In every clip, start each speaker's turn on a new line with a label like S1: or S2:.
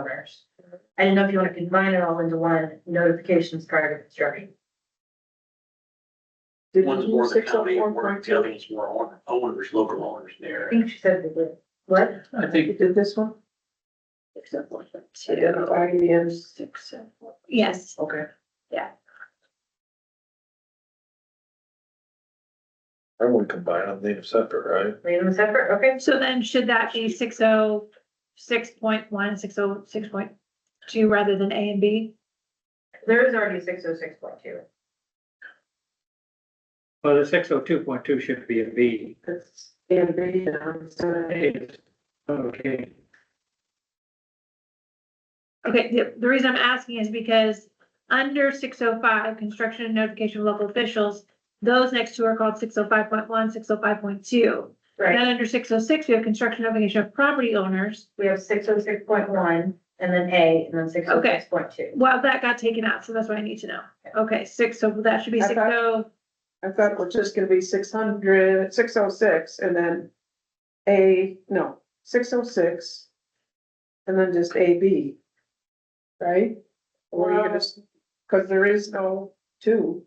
S1: owners. I didn't know if you want to combine it all into one notifications prior to construction.
S2: One's more
S3: oh
S2: the county, or the other one's more owner- owners, local owners
S1: I
S2: there.
S1: think she said, we did. what?
S2: I think
S3: did this one?
S1: oh
S4: Except for the
S3: Two.
S4: two, six, seven, four. Yes,
S3: Okay.
S5: I would combine them, leave them separate, right?
S1: Leave them separate, okay?
S4: so then should that be six oh, six point one, six oh, six point two rather than A and B?
S1: There is already six oh six point two.
S6: Well, the six oh two point two should be a B.
S3: It's in B, um, so
S6: It's- Okay,
S4: Okay, the, the reason I'm asking is because under six oh five, construction and notification of local officials, those next two are called 605.1, 605.2. Then
S1: Right,
S4: under six oh six, we have construction notification of property owners.
S1: we have six oh six point one and then A and then six oh six point two.
S4: Well, that got taken out, so that's what I need to know. Okay, six, so that should be
S3: I
S4: six
S3: thought-
S4: oh,
S3: I thought it was just gonna be six hundred, six oh six, and then A, no, six oh six. And then just A, B. Right? Or you
S1: Well-
S3: just, cause there is no two,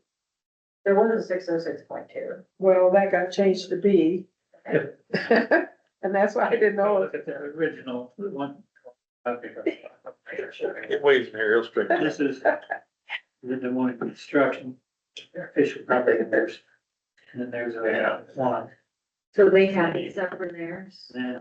S1: There was a six oh six point two.
S3: well, that got changed to B.
S6: Yep.
S3: And that's why I didn't know,
S6: look at the original one.
S5: It waves here, it'll straighten.
S6: This is the Des Moines construction, official property owners. And then there's a one.
S1: So they had it separate theirs.
S6: Yeah.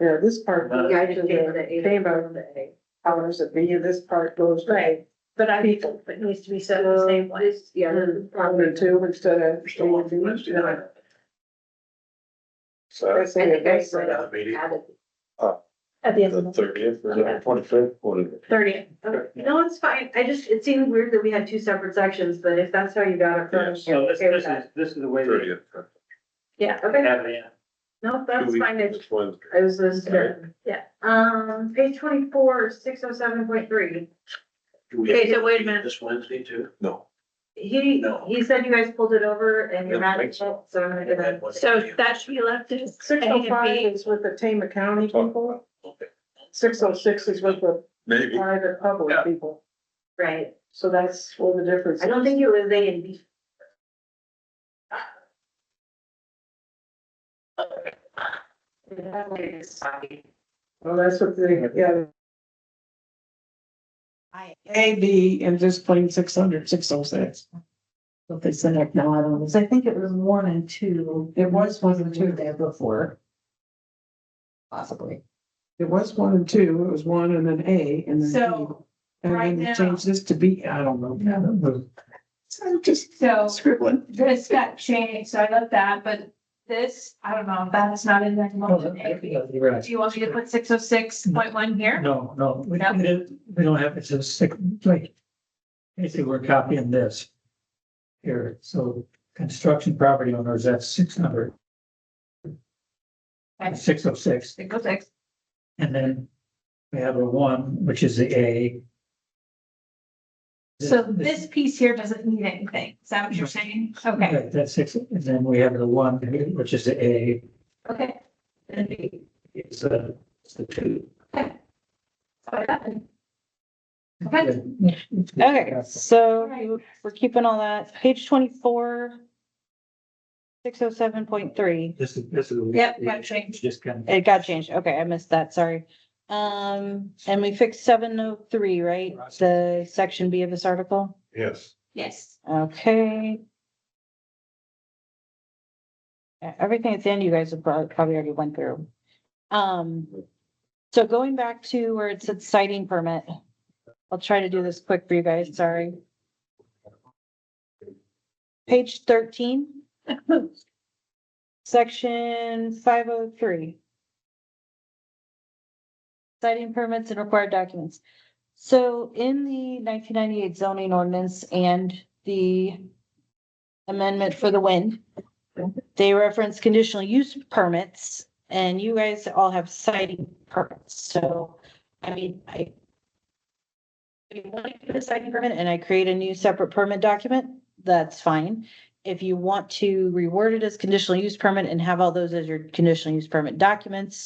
S3: yeah, this part
S1: Yeah, I just gave the A.
S3: Came out of the powers of B, and this part goes to
S4: Right. but I,
S3: People.
S4: it needs to be said the same way.
S1: This, yeah, this is
S3: one
S1: probably
S3: and two instead of.
S2: there's still one from Wednesday night.
S5: So
S3: That's it,
S1: I
S3: that's
S1: think I
S3: it.
S2: Another meeting.
S1: added.
S4: At the end of
S5: the
S4: the
S5: thirtieth or the twenty-fifth, whatever.
S4: thirtieth.
S1: Okay, No, it's fine. I just, it seemed weird that we had two separate sections, but if that's how you got it from.
S6: So this, this is, this is the way they
S5: Thirtieth.
S1: Yeah, okay.
S6: have it in.
S1: No, that's
S5: Two
S1: fine.
S5: weeks,
S1: It's
S5: it's Wednesday.
S1: I was just,
S3: uh,
S5: Right.
S1: yeah, um, page twenty-four, six oh seven point three.
S2: Do we
S4: Okay,
S2: have
S4: so
S2: to
S4: wait a
S2: meet
S4: minute.
S2: This Wednesday too.
S5: No,
S1: He,
S2: No.
S1: he said you guys pulled it over and
S2: Yeah,
S1: you're mad at it,
S2: thanks.
S1: so I'm gonna give it.
S4: So that should be left as A
S3: Six oh five
S4: and B.
S3: is with the Tama County people. Six oh six is with the
S5: maybe.
S3: private public
S2: Yeah.
S3: people.
S1: Right,
S3: So that's all the difference.
S1: I don't think it was A and B.
S3: Well, that's what the, yeah. A, B, and just plain six hundred, six oh six.
S7: What they sent up now, I don't know, 'cause I think it was one and two, there was one and two there before. Possibly.
S3: It was one and two, it was one and then A and then B.
S7: So,
S3: And
S7: right
S3: then they
S7: now-
S3: changed this to B, I don't know.
S7: Yeah.
S3: So I'm just
S7: so
S3: scribbling.
S7: this got changed, so I left that, but this, I don't know, Oh, that is not in there
S8: Oh,
S7: anymore. Do you want me to put six oh six point one here?
S8: No, no, we
S7: No.
S8: we didn't, we don't have, it's a sick, like, basically, we're copying this. Here, so construction property owners, that's six hundred.
S7: Okay.
S8: Six oh six,
S7: Six oh six,
S8: and then we have a one, which is the A.
S7: so this piece here doesn't need anything, is that what you're saying? Okay,
S8: Right, That's six, and then we have the one, which is the A,
S7: okay.
S8: and B is the, is the two.
S7: Okay.
S9: Okay, so
S7: Alright.
S9: you- we're keeping all that. Page twenty-four. Six oh seven point three.
S8: This is, this is.
S9: Yep, got
S7: changed.
S8: Just kind
S9: It got changed. Okay, I missed that. Sorry. Um, and we fixed seven oh three, right? The section B of this article.
S5: Yes.
S7: Yes,
S9: Okay. Yeah, E, Everything at the end, you guys have prob- probably already went through. Um, so going back to where it said citing permit. I'll try to do this quick for you guys, sorry. Page thirteen. Section five oh three. Citing permits and required documents. So in the nineteen ninety-eight zoning ordinance and the amendment for the wind, they reference conditional use permits and you guys all have citing permits. So, I mean, I if you want to get a citing permit and I create a new separate permit document, that's fine. If you want to reword it as conditional use permit and have all those as your conditional use permit documents,